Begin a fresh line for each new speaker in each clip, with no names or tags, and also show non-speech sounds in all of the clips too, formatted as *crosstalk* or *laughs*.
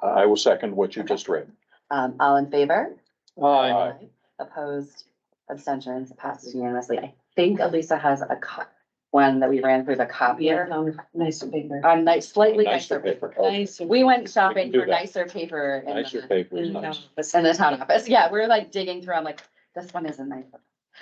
I will second what you just read.
Um, all in favor?
Aye.
Aye.
Opposed, abstentions, passes unanimously. I think Elisa has a co- one that we ran through the
Yeah,
copier
no, nice paper.
on nice, slightly
Nicer
nicer
paper.
paper.
Nice.
We went
We can
shopping
do
for
that.
nicer paper in
Nicer
the,
paper is
And,
nice.
uh,
in the town office. Yeah, we're like digging through. I'm like, this one isn't nice.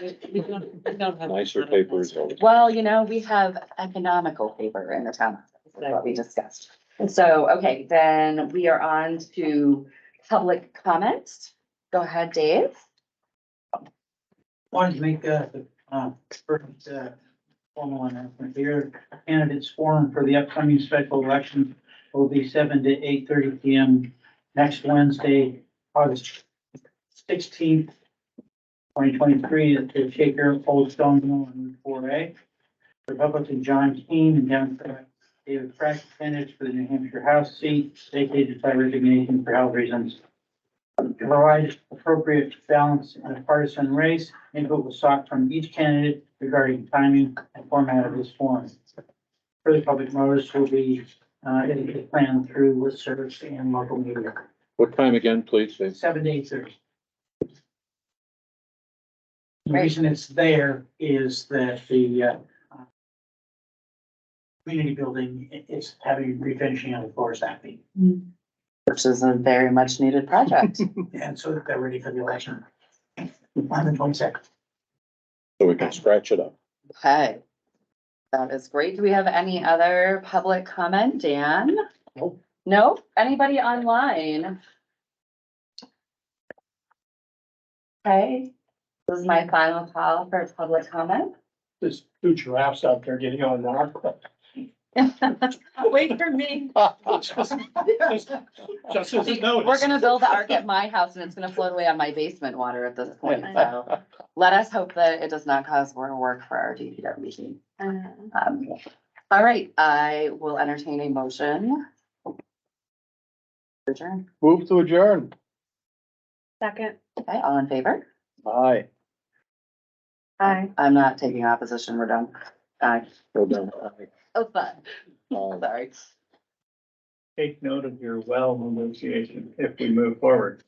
We we don't, we don't have.
Nicer paper is always.
Well, you know, we have economical paper in the town, office, is what we discussed. So, okay, then we are on to public comments. Go ahead, Dave.
wanted to make uh, the, uh, first, uh, formal announcement here. Candidates forum for the upcoming special election will be seven to eight thirty P M next Wednesday, August sixteenth, twenty twenty-three, at the Shaker Old Stone Mill in Route four A. Republican John Keane and Democrat David Frank finished for the New Hampshire House seat, vacated by resignation for health reasons. To Provide appropriate balance in a partisan race, input was sought from each candidate regarding timing and format of this forum. Further public notice will be, uh, indicated plan through listservs and local media,
What time again, please? Dave?
seven to eight thirty. The
Great.
reason it's there is that the, uh, uh, community building i- is having refinishing on the floors that week,
Which is a very much needed project.
and so that they're ready for the election on the twenty-second.
So we can scratch it up.
Okay. That is great. Do we have any other public comment, Dan? No? Anybody online? Okay, this is my final call for public comment.
There's two giraffes out there getting on
*laughs*
the.
Wait
*laughs*
for me.
Just as a
We're
notice.
gonna build the ark at my house and it's gonna float away on my basement water at this point, so. Let us hope that it does not cause more work for our DPW team.
Uh,
Um, all right, I will entertain a motion. Adjourn.
Move to adjourn.
Second.
Okay, all in favor?
Aye.
Aye.
I'm not taking opposition, we're done. Uh,
Well done.
oh, fun,
Aye.
Oh, sorry.
take note of your well negotiation if we move forward.